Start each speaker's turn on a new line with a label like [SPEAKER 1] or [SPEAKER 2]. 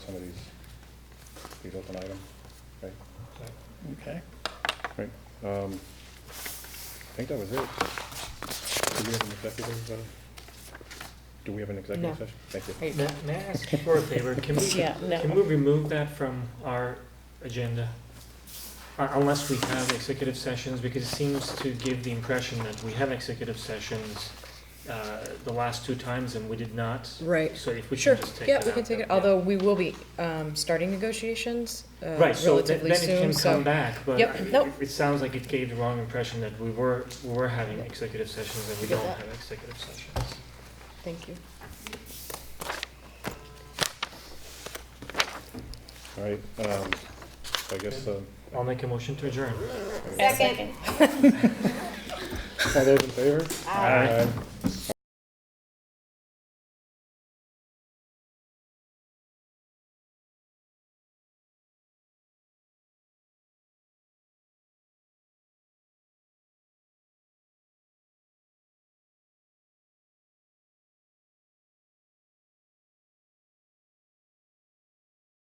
[SPEAKER 1] some of these, these open items, right?
[SPEAKER 2] Okay.
[SPEAKER 1] Right, um, I think that was it. Do we have an executive, uh, do we have an
[SPEAKER 3] No.
[SPEAKER 1] executive session? Thank you.
[SPEAKER 3] Hey,
[SPEAKER 4] May may I ask for a favor? Can we,
[SPEAKER 3] Yeah, no.
[SPEAKER 4] can we remove that from our agenda? Uh, Unless we have executive sessions, because it seems to give the impression that we have executive sessions uh, the last two times and we did not.
[SPEAKER 3] Right.
[SPEAKER 4] So if we
[SPEAKER 3] Sure,
[SPEAKER 4] can just take that
[SPEAKER 3] yeah,
[SPEAKER 4] out.
[SPEAKER 3] we can take it,
[SPEAKER 4] then-
[SPEAKER 3] although we will be um, starting negotiations uh,
[SPEAKER 4] Right, so th-
[SPEAKER 3] relatively
[SPEAKER 4] then it
[SPEAKER 3] soon,
[SPEAKER 4] can come
[SPEAKER 3] so.
[SPEAKER 4] back, but
[SPEAKER 3] Yep,
[SPEAKER 4] I-
[SPEAKER 3] nope.
[SPEAKER 4] it sounds like it gave the wrong impression that we were, we were having
[SPEAKER 3] Yeah.
[SPEAKER 4] executive sessions and we
[SPEAKER 3] Get
[SPEAKER 4] don't
[SPEAKER 3] that.
[SPEAKER 4] have executive sessions.
[SPEAKER 3] Thank you.
[SPEAKER 1] All right, um, so I guess, uh,
[SPEAKER 4] I'll make a motion to adjourn.
[SPEAKER 1] all those in favor?
[SPEAKER 4] Aye.